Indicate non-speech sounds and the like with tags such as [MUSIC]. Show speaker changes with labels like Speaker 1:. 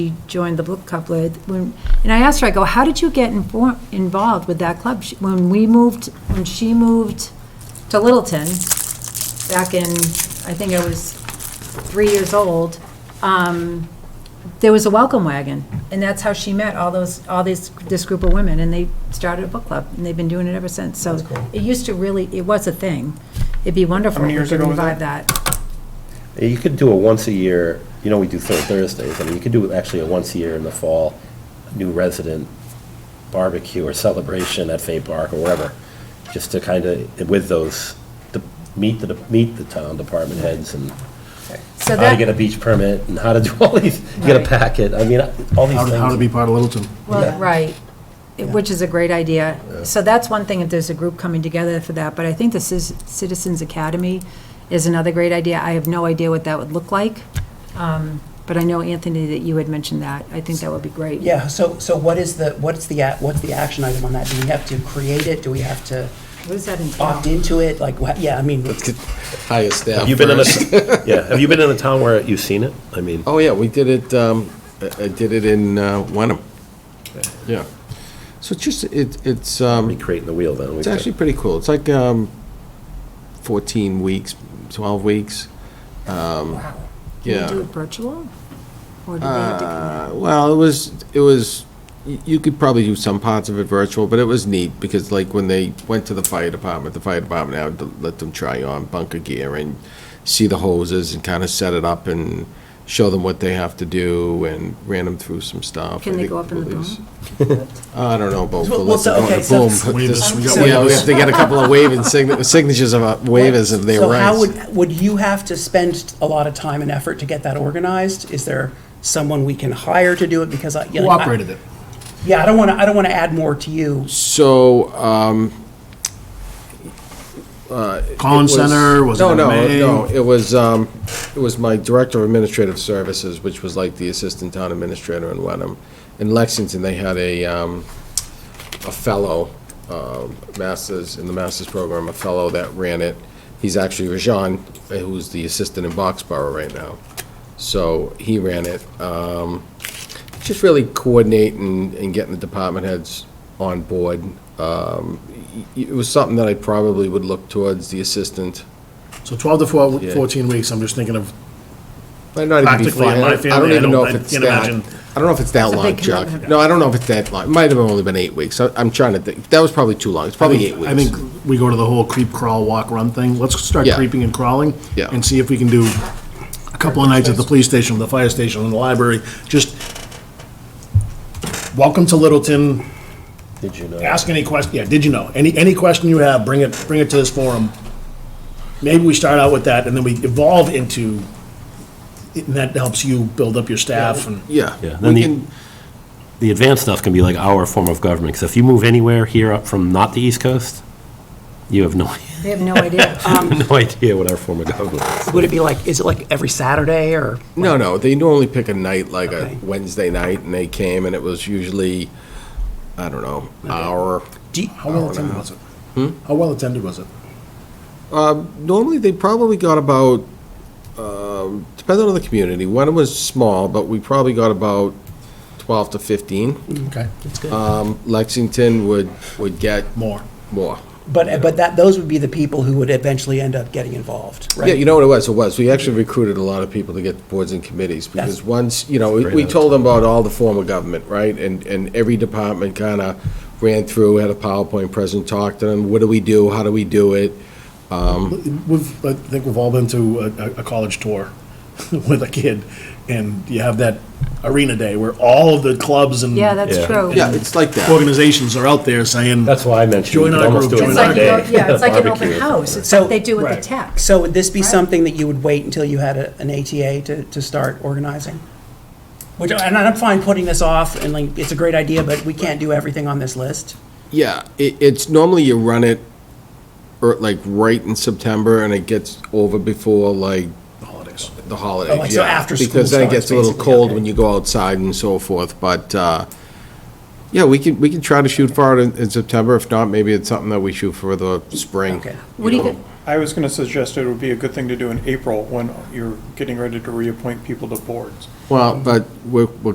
Speaker 1: she joined the book club with, when, and I asked her, I go, how did you get infor- involved with that club? She- When we moved, when she moved to Littleton, back in, I think I was three years old, um, there was a welcome wagon, and that's how she met all those, all these, this group of women, and they started a book club, and they've been doing it ever since, so.
Speaker 2: That's cool.
Speaker 1: It used to really, it was a thing. It'd be wonderful if
Speaker 2: many
Speaker 1: we
Speaker 2: years
Speaker 1: could
Speaker 2: ago was
Speaker 1: revive that.
Speaker 3: Yeah, You could do a once a year, you know, we do Third Thursdays, I mean, you could do actually a once a year in the fall, new resident barbecue or celebration at Fay Park or wherever, just to kind of, with those, to meet the, meet the town department heads and
Speaker 1: So
Speaker 3: how to
Speaker 1: that.
Speaker 3: get a beach permit and how to do all these, get a
Speaker 1: Right.
Speaker 3: packet, I mean, all these
Speaker 4: How to, how to be
Speaker 3: things.
Speaker 4: part of Littleton.
Speaker 1: Well,
Speaker 3: Yeah.
Speaker 1: right, It- which is a great idea. So that's one thing, if there's a group coming together for that, but I think the Cis- Citizens Academy is another great idea. I have no idea what that would look like, um, but I know, Anthony, that you had mentioned that. I think that would be great.
Speaker 2: Yeah, so, so what is the, what's the, a- what's the action item on that? Do we have to create it? Do we have to
Speaker 1: What does that
Speaker 2: opt
Speaker 1: entail?
Speaker 2: into it? Like, what- yeah, I mean,
Speaker 4: Hire staff
Speaker 3: You've been in a, yeah, have you been in a town where you've seen it? I mean,
Speaker 4: Oh, yeah, we did it, um, I I did it in uh, Wenham. Yeah. So it's just, it, it's,
Speaker 3: we
Speaker 4: um,
Speaker 3: creating the wheel then. we
Speaker 4: it's
Speaker 3: could-
Speaker 4: actually pretty cool. It's like, um, fourteen weeks, twelve weeks.
Speaker 1: Wow. Can
Speaker 4: Yeah.
Speaker 1: you do it virtual? Or do they have to come
Speaker 4: Uh, Well, it was, it was, y- you could probably do some parts of it virtual, but it was neat, because like when they went to the fire department, the fire department now to let them try on bunker gear and see the hoses and kind of set it up and show them what they have to do and ran them through some stuff.
Speaker 1: Can
Speaker 4: I
Speaker 1: they
Speaker 4: think
Speaker 1: go up in the
Speaker 4: it
Speaker 1: boom?
Speaker 4: was- [LAUGHS] I don't know about,
Speaker 2: Well,
Speaker 4: we'll let
Speaker 2: so-
Speaker 4: them go in
Speaker 2: okay,
Speaker 4: the
Speaker 2: so-
Speaker 4: boom.
Speaker 5: Waivers, we got
Speaker 4: Yeah, we
Speaker 5: waivers.
Speaker 4: have to get a couple of wave and signa- signatures of uh, waivers if they
Speaker 2: So
Speaker 4: were
Speaker 2: how
Speaker 4: right.
Speaker 2: would, would you have to spend a lot of time and effort to get that organized? Is there someone we can hire to do it? Because I. yeah,
Speaker 5: Who
Speaker 2: I-
Speaker 5: operated it?
Speaker 2: Yeah, I don't want to, I don't want to add more to you.
Speaker 4: So, um,
Speaker 5: Collin
Speaker 4: was-
Speaker 5: Center, was it
Speaker 4: No, no,
Speaker 5: MMA?
Speaker 4: no, it was, um, it was my Director of Administrative Services, which was like the Assistant Town Administrator in Wenham. In Lexington, they had a, um, a fellow, um, masters, in the master's program, a fellow that ran it. He's actually Rajan, who's the assistant in Boxborough right now. So he ran it. Um, just really coordinating and getting the department heads on board. Um, y- y- It was something that I probably would look towards the assistant.
Speaker 5: So 12 to 4
Speaker 4: Yeah.
Speaker 5: 14 weeks, I'm just thinking of,
Speaker 4: Might not even be
Speaker 5: Practically,
Speaker 4: fine.
Speaker 5: in my
Speaker 4: I don't- I don't
Speaker 5: family, I
Speaker 4: even know
Speaker 5: don't-
Speaker 4: if
Speaker 5: I
Speaker 4: it's
Speaker 5: can't
Speaker 4: that,
Speaker 5: imagine.
Speaker 4: I don't know if it's that
Speaker 1: It's a
Speaker 4: long,
Speaker 1: big
Speaker 4: Chuck.
Speaker 1: commitment.
Speaker 4: No, I don't know if it's that long. It Might have only been eight weeks. I- I'm trying to think. That was probably too long. It's
Speaker 5: I
Speaker 4: probably eight
Speaker 5: think,
Speaker 4: weeks.
Speaker 5: I think we go to the whole creep, crawl, walk, run thing. Let's start
Speaker 4: Yeah.
Speaker 5: creeping and crawling.
Speaker 4: Yeah.
Speaker 5: And see if we can do a couple of nights at the police station, the fire station, and the library. Just, welcome to Littleton,
Speaker 3: Did you know?
Speaker 5: ask any question, yeah, did you know? Any, any question you have, bring it, bring it to this forum. Maybe we start out with that, and then we evolve into, and that helps you build up your staff and.
Speaker 4: Yeah.
Speaker 3: Yeah,
Speaker 4: We
Speaker 3: then the-
Speaker 4: can-
Speaker 3: the advanced stuff can be like our form of government, because if you move anywhere here up from not the East Coast, you have no, [LAUGHS]
Speaker 1: They have no idea.
Speaker 4: Um,
Speaker 3: no idea what our form of government is.
Speaker 2: Would it be like, is it like every Saturday or?
Speaker 4: No, no, they normally pick a night, like a
Speaker 2: Okay.
Speaker 4: Wednesday night, and they came, and it was usually, I don't know, hour.
Speaker 2: Do you-
Speaker 5: How well attended was it?
Speaker 4: Hmm?
Speaker 5: How well attended was it?
Speaker 4: Normally, they probably got about, um, depending on the community, one was small, but we probably got about 12 to 15.
Speaker 5: Okay.
Speaker 2: That's good.
Speaker 4: Um, Lexington would, would get
Speaker 5: More.
Speaker 4: more.
Speaker 2: But, but that, those would be the people who would eventually end up getting involved, right?
Speaker 4: Yeah, you know what it was, it was, we actually recruited a lot of people to get boards and committees, because
Speaker 2: That's-
Speaker 4: once, you know, we- we told them about all the form of government, right? And, and every department kind of ran through, had a PowerPoint present, talked to them, what do we do, how do we do it?
Speaker 5: We've, I think we've all been to a, a- a college tour [LAUGHS] with a kid, and you have that arena day where all of the clubs and.
Speaker 1: Yeah, that's true.
Speaker 4: Yeah, it's like that.
Speaker 5: Organizations are out there saying.
Speaker 3: That's why I mentioned.
Speaker 5: Join our group,
Speaker 1: It's
Speaker 5: join
Speaker 1: like,
Speaker 5: our
Speaker 1: an
Speaker 5: day.
Speaker 1: o- yeah, it's like an open
Speaker 3: Barbecue.
Speaker 1: house. It's
Speaker 2: So-
Speaker 1: like they do with the
Speaker 5: Right.
Speaker 1: tech.
Speaker 2: So would this be
Speaker 1: Right.
Speaker 2: something that you would wait until you had a- an ATA to, to start organizing? Which, and I'm fine putting this off, and like, it's a great idea, but we can't do everything on this list.
Speaker 4: Yeah, it, it's normally you run it, or like right in September, and it gets over before like
Speaker 5: Holidays.
Speaker 4: the holidays.
Speaker 2: Oh, like, so
Speaker 4: yeah,
Speaker 2: after school
Speaker 4: Because then it
Speaker 2: starts,
Speaker 4: gets a little
Speaker 2: basically,
Speaker 4: cold
Speaker 2: okay.
Speaker 4: when you go outside and so forth, but, uh, yeah, we can, we can try to shoot for it in, in September, if not, maybe it's something that we shoot for the spring.
Speaker 2: Okay.
Speaker 1: What do you, get-
Speaker 6: I was going to suggest it would be a good thing to do in April when you're getting ready to reappoint people to boards.
Speaker 4: Well, but we're, we're